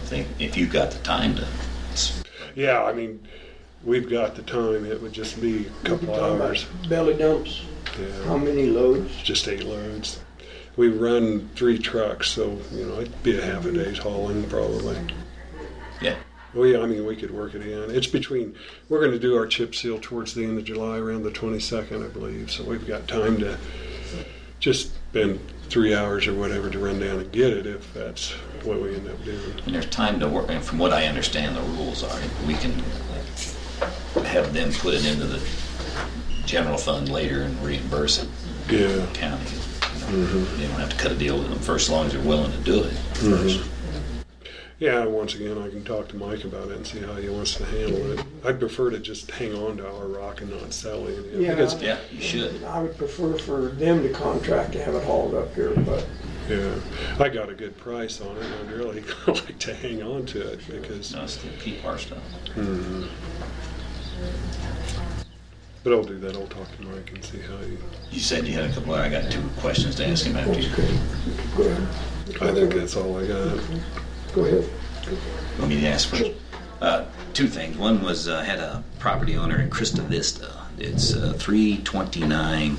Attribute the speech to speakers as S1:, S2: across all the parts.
S1: think if you've got the time to, it's-
S2: Yeah, I mean, we've got the time. It would just be a couple hours.
S3: Belly dumps,
S2: Yeah,
S3: how many loads?
S2: just eight loads. We run three trucks, so you know it'd be a half a day's hauling probably.
S1: yeah.
S2: We, I mean, we could work it in. It's between. We're going to do our chip seal towards the end of July, around the 22nd, I believe. So we've got time to just spend three hours or whatever to run down and get it, if that's what we end up doing.
S1: And there's time to work, and from what I understand, the rules are, we can have them put it into the general fund later and reimburse it
S2: Yeah.
S1: to the county. You know, You don't have to cut a deal with them first, as long as they're willing to do it first.
S2: Yeah, once again, I can talk to Mike about it and see how he wants to handle it. I'd prefer to just hang on to our rock and not sell it. you know,
S3: Yeah.
S2: Because,
S1: Yeah, you should.
S3: I would prefer for them to contract to have it hauled up here, but
S2: yeah, I got a good price on it. and I'd really like to hang on to it because,
S1: No, still keep our stuff.
S2: but I'll do that. I'll talk to Mike and see how he.
S1: You said you had a couple, I got two questions to ask him after you.
S3: okay. Go ahead,
S2: I think that's all I got.
S3: go ahead.
S1: Let me ask first. Uh, two things. One was uh, had a property owner in Crista Vista. It's uh, 329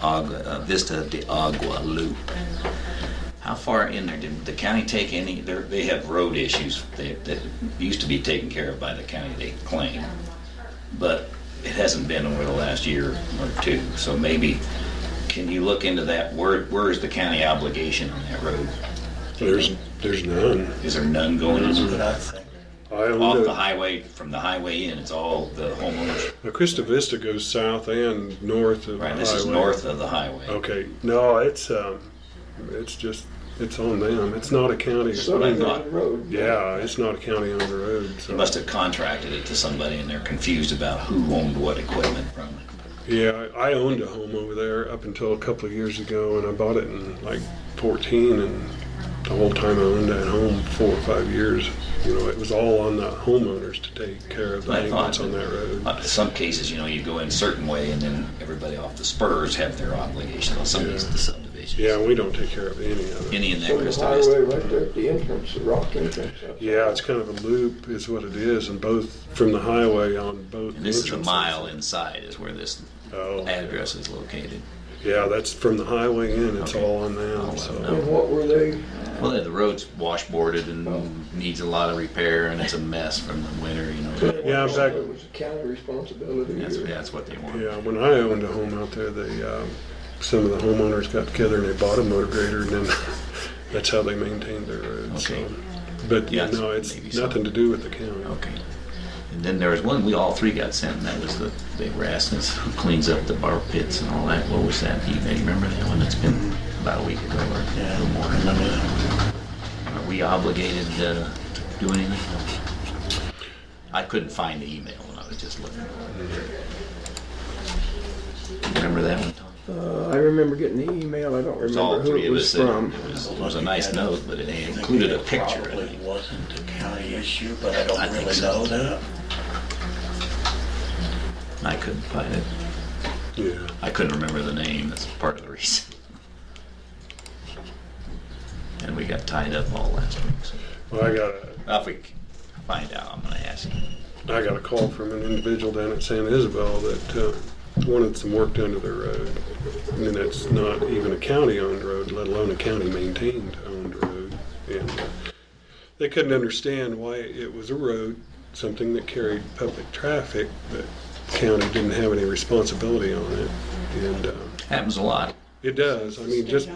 S1: Agua, uh, Vista de Agua Loop. How far in there did the county take any? they're- They have road issues that, that used to be taken care of by the county. They claim, but it hasn't been over the last year or two. So maybe can you look into that? Where where is the county obligation on that road?
S2: There's, there's none.
S1: Is there none going into that?
S2: I don't
S1: Off the
S2: know.
S1: highway, from the highway in, it's all the homeowners.
S2: Now, Crista Vista goes south and north of
S1: Right,
S2: the
S1: this is
S2: highway. Oh.
S1: north of the highway.
S2: Okay, no, it's um, it's just it's on them. It's not a county.
S3: So
S1: I
S3: down
S1: thought.
S3: the road.
S2: Yeah, it's not a county on the road.
S1: They
S2: So.
S1: must have contracted it to somebody and they're confused about who owned what equipment from it.
S2: Yeah, I I owned a home over there up until a couple of years ago, and I bought it in like 14, and the whole time I owned that home, four or five years, you know, it was all on the homeowners to take care of the
S1: I thought-
S2: maintenance on that road.
S1: Uh, Some cases, you know, you go in a certain way and then everybody off the spurs have their obligation on some of these
S2: Yeah.
S1: the subdivisions.
S2: Yeah, we don't take care of any of it.
S1: Any in that
S3: So the
S1: Crystal Vista.
S3: highway right there at the entrance, the rock entrance. that's-
S2: Yeah, it's kind of a loop, is what it is, and both from the highway on both.
S1: And this is a
S2: entrances.
S1: mile inside is where this
S2: Oh,
S1: address is located.
S2: yeah, that's from the highway in. It's
S1: Okay.
S2: all on them.
S1: Oh, well,
S2: so.
S1: no.
S3: And what were they,
S1: Well, the road's washboarded
S2: Oh.
S1: and needs a lot of repair and it's a mess from the winter, you know.
S2: Yeah, in fact-
S3: it was a county responsibility.
S1: That's,
S3: or-
S1: that's what they want.
S2: Yeah, when I owned a home out there, they, um, some of the homeowners got together and they bought a motor grader, and then that's how they maintained their roads. so.
S1: Okay.
S2: But
S1: Yeah,
S2: yeah, no, it's
S1: maybe so.
S2: nothing to do with the county.
S1: Okay. And then there was one we all three got sent, and that was the, they were asking us who cleans up the bar pits and all that. What was that? Do you guys remember that one? That's been about a week ago or a little more. Are we obligated uh, to do anything? I couldn't find the email when I was just looking. Remember that one? Tom?
S3: Uh, I remember getting the email, I don't
S1: It was
S3: remember
S1: all
S3: who
S1: three
S3: it
S1: of
S3: was
S1: us. that-
S3: from.
S1: It was, it was a nice note, but it included a picture. I
S4: Probably
S1: think.
S4: wasn't a county issue, but I
S1: I
S4: don't
S1: think
S4: really
S1: so.
S4: know that.
S1: I couldn't find it.
S2: Yeah,
S1: I couldn't remember the name. That's part of the reason. And we got tied up all last week. So
S2: well, I got a,
S1: if we find out, I'm going to ask him.
S2: I got a call from an individual down at San Isabel that uh, wanted some work done to their road. I mean, that's not even a county-owned road, let alone a county-maintained owned road. And uh, they couldn't understand why it was a road, something that carried public traffic, but county didn't have any responsibility on it. And uh,
S1: Happens a lot.
S2: it does, I mean, just,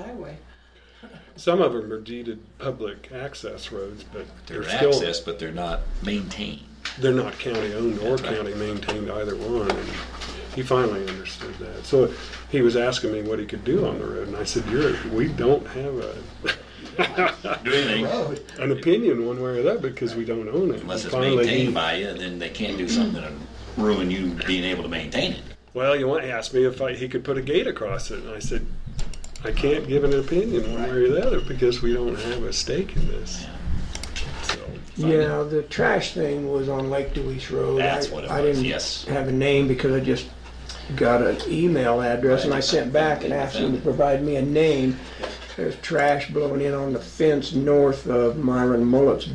S2: some of them are deeded public access roads, but
S1: They're
S2: they're still.
S1: access, but they're not maintained.
S2: they're not county owned or
S1: That's right.
S2: county maintained either one. And he finally understood that. So he was asking me what he could do on the road, and I said, "You're we don't have a
S1: Do anything
S2: an opinion one way or the other because we don't own it."
S1: unless it's
S2: Finally, he-
S1: maintained by you, then they can't do something to ruin you being able to maintain it.
S2: Well, you want to ask me if I, he could put a gate across it, and I said, "I can't give an opinion one way or the other because we don't have a stake in this." So
S3: Yeah, the trash thing was on Lake Dewey's Road.
S1: That's
S3: I-
S1: what it
S3: I
S1: was,
S3: didn't
S1: yes.
S3: Have a name because I just got an email address and I sent back and asked them to provide me a name. There's trash blowing in on the fence north of Myron Mullet's